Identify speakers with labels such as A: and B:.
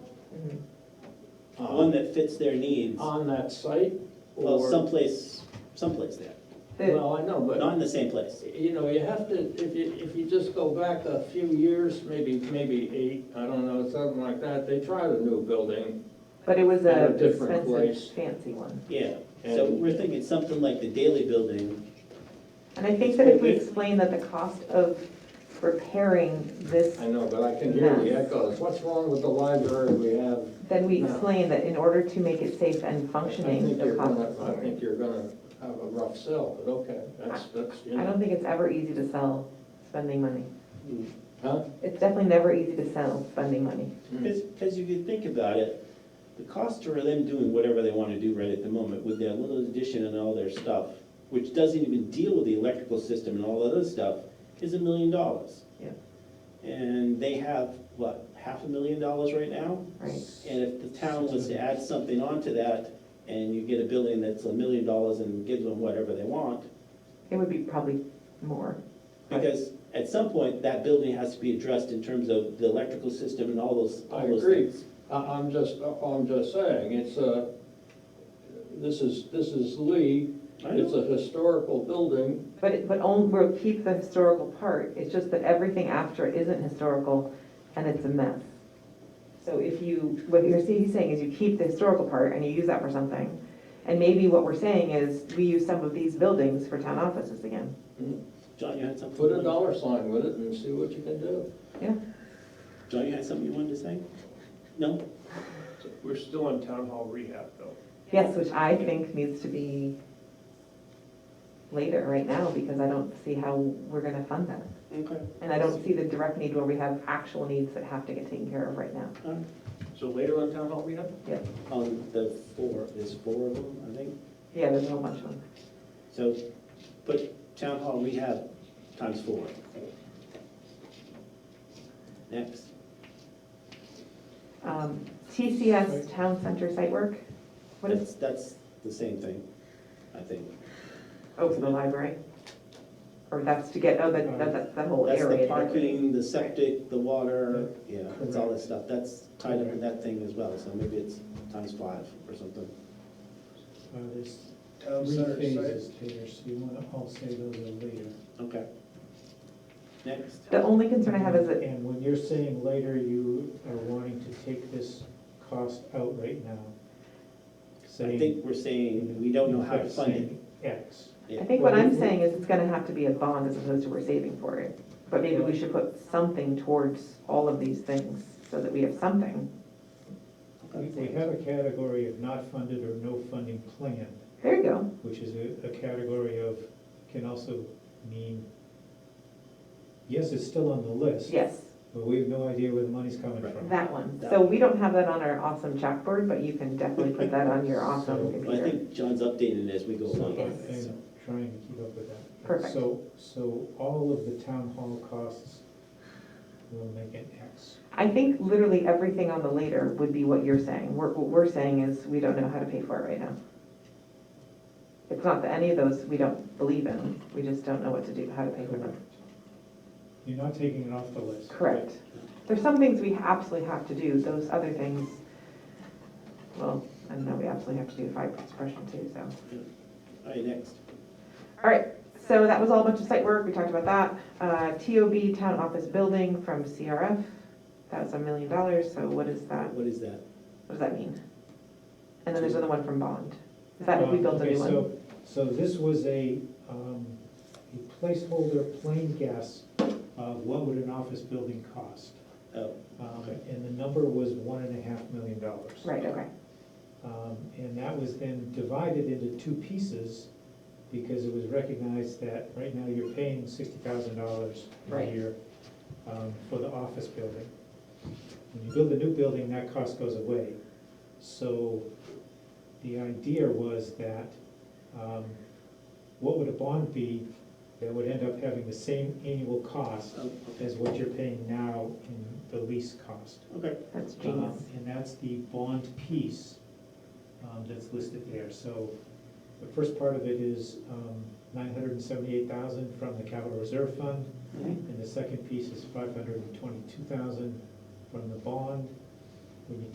A: uh,
B: one that fits their needs,
A: On that site?
B: well,
A: Uh, or-
B: someplace, someplace there,
C: The-
A: Well, I know, but.
B: not in the same place.
A: You know, you have to, if you, if you just go back a few years, maybe, maybe eight, I don't know, something like that, they tried a new building.
C: But it was
A: At
C: a
A: a different place.
C: expensive, fancy one.
B: Yeah, so
A: And-
B: we're thinking something like the Daily Building,
C: And I think that if we explain that the cost of repairing this,
A: I know, but I can hear the echoes. What's wrong with the library we have?
C: then we
A: No.
C: explain that in order to make it safe and
A: I think
C: functioning,
A: you're
C: the cost
A: gonna,
C: is
A: I
C: lower.
A: think you're gonna have a rough sell, but okay, that's, that's, you
C: I
A: know.
C: don't think it's ever easy to sell spending money.
A: Mm-hmm. Huh?
C: It's definitely never easy to sell spending money.
B: because, because if you think about it, the cost for them doing whatever they want to do right at the moment with their little addition and all their stuff, which doesn't even deal with the electrical system and all that other stuff, is a million dollars.
C: Yeah.
B: And they have, what, half a million dollars right now?
C: Right.
B: And if the town was to add something onto that, and you get a building that's a million dollars and gives them whatever they want,
C: It would be probably more. Right.
B: because at some point, that building has to be addressed in terms of the electrical system and all those, all
A: I
B: those
A: agree.
B: things.
A: I, I'm just, I'm just saying, it's a, this is, this is Lee,
B: I know.
A: it's a historical building.
C: But, it- but only, we'll keep the historical part, it's just that everything after it isn't historical, and it's a mess. So if you, what you're, see- he's saying is you keep the historical part and you use that for something, and maybe what we're saying is, we use some of these buildings for town offices again.
B: John, you had something?
A: Put
B: you
A: a
B: wanted-
A: dollar sign with it and see what you can do.
B: John, you had something you wanted to say? No?
D: We're still on town hall rehab though.
C: Yes, which I think needs to be later, right now, because I don't see how we're gonna fund that.
B: Okay.
C: And I don't see the direct need where we have actual needs that have to get taken care of right now.
B: All right.
D: So later on town hall rehab?
B: On the four, there's four of them, I think.
C: Yeah, there's a whole bunch of them.
B: So put town hall rehab times four. Next.
C: Um, TCS Town Center site work, what is,
B: That's, that's the same thing, I think.
C: oh, for the library? Or that's to get, oh, that, that- that's the whole
B: That's
C: area.
B: the
C: that we-
B: parking, the septic, the water, yeah, it's all this stuff. That's tied up in that thing as well, so maybe it's times five or something.
E: Uh, There's
B: Oh,
D: Town
E: three
D: center
E: phases,
D: site.
E: Peter, so you want, I'll say those are later.
B: Okay. Next.
C: The only concern I have is that,
E: And when you're saying later, you are wanting to take this cost out right now.
B: I
E: Saying-
B: think we're saying we don't know how to
E: Saying
B: fund it.
E: X.
C: I think what I'm saying is it's gonna have to be a bond as opposed to we're saving for it. But maybe we should put something towards all of these things, so that we have something.
E: We we have a category of not funded or no funding plan,
C: There you go,
E: which is a, a category of, can also mean, yes, it's still on the list,
C: yes,
E: but we have no idea where the money's coming
B: Right.
E: from.
C: that one. So we don't have that on our awesome chalkboard, but you can definitely put that on your awesome
B: Well, I
C: computer.
B: think John's updating it as we go along.
E: So
C: Yes.
B: So,
E: I'm trying to keep up with that.
C: Perfect.
E: So, so all of the town hall costs will make an X.
C: I think literally everything on the later would be what you're saying. We're- What we're saying is, we don't know how to pay for it right now. It's not that any of those we don't believe in, we just don't know what to do, how to pay for them.
E: You're not taking it off the list.
C: Correct. There's some things we absolutely have to do, those other things, well, I don't know, we absolutely have to do fire suppression too, so.
B: All right, next.
C: All right, so that was all a bunch of site work, we talked about that. Uh, TOB, town office building from CRF, that was a million dollars, so what is that?
B: What is that?
C: What does that mean? And then there's another one from Bond. Is that if we
E: Um,
C: built a
E: okay,
C: new one?
E: so- So this was a, um, a placeholder plain guess of what would an office building cost.
B: Oh,
E: Um,
B: Okay.
E: And the number was one and a half million dollars.
C: Right, okay.
E: Um, And that was then divided into two pieces because it was recognized that right now you're paying sixty thousand dollars a
C: Right.
E: year um, for the office building. When you build a new building, that cost goes away. So the idea was that, um, what would a bond be that would end up having the same annual cost
B: oh,
E: as what you're paying now in the lease cost?
B: okay.
C: That's
E: Um,
C: genius.
E: And that's the bond piece um, that's listed there. So the first part of it is um, nine hundred and seventy-eight thousand from the capital reserve fund,
B: Mhm.
E: and the second piece is five hundred and twenty-two thousand from the bond. When you